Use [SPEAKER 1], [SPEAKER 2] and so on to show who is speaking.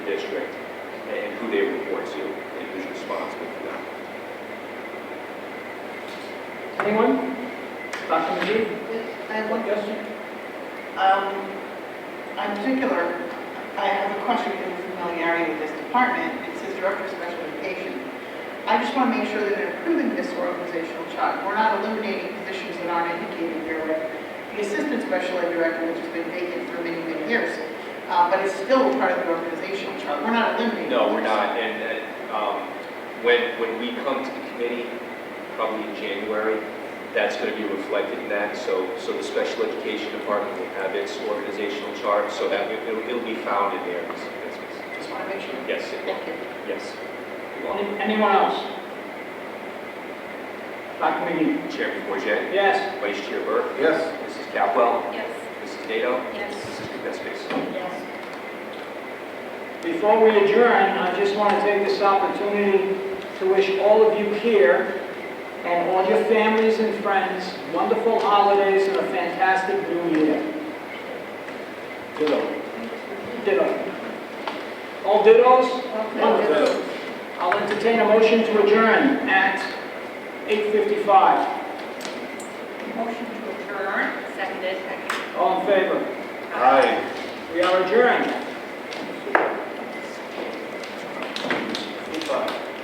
[SPEAKER 1] district and who they report to and who's responsible for that.
[SPEAKER 2] Anyone? Dr. McGee?
[SPEAKER 3] I have one question. Um, In particular, I have a question in familiarity with this department. It says Director of Special Education. I just want to make sure that they're improving this organizational chart. We're not eliminating positions that aren't indicated here with the Assistant Special Ed Director, which has been vacant for many, many years, uh, but it's still part of the organizational chart. We're not eliminating.
[SPEAKER 1] No, we're not, and, and, um, when, when we come to the committee, probably in January, that's gonna be reflected in that, so, so the special education department will have its organizational chart, so that it- it'll, it'll be found in there.
[SPEAKER 3] Just want to make sure.
[SPEAKER 1] Yes, it will.
[SPEAKER 3] Thank you.
[SPEAKER 1] yes. It will.
[SPEAKER 2] Any- Anyone else? Dr. McGee?
[SPEAKER 1] Chairman Bourget,
[SPEAKER 2] Yes.
[SPEAKER 1] Vice Chair Burke,
[SPEAKER 4] Yes.
[SPEAKER 1] Mrs. Capwell,
[SPEAKER 5] Yes.
[SPEAKER 1] Mrs. Nato,
[SPEAKER 5] Yes.
[SPEAKER 1] Mrs. Kuzensky.
[SPEAKER 5] Yes.
[SPEAKER 2] Before we adjourn, I just want to take this opportunity to wish all of you here and all your families and friends wonderful holidays and a fantastic new year. Ditto. Ditto. All dittos? Wonderful. I'll entertain a motion to adjourn at 8:55.
[SPEAKER 5] Motion to adjourn, seconded.
[SPEAKER 2] All in favor?
[SPEAKER 5] Aye.
[SPEAKER 2] We are adjourned.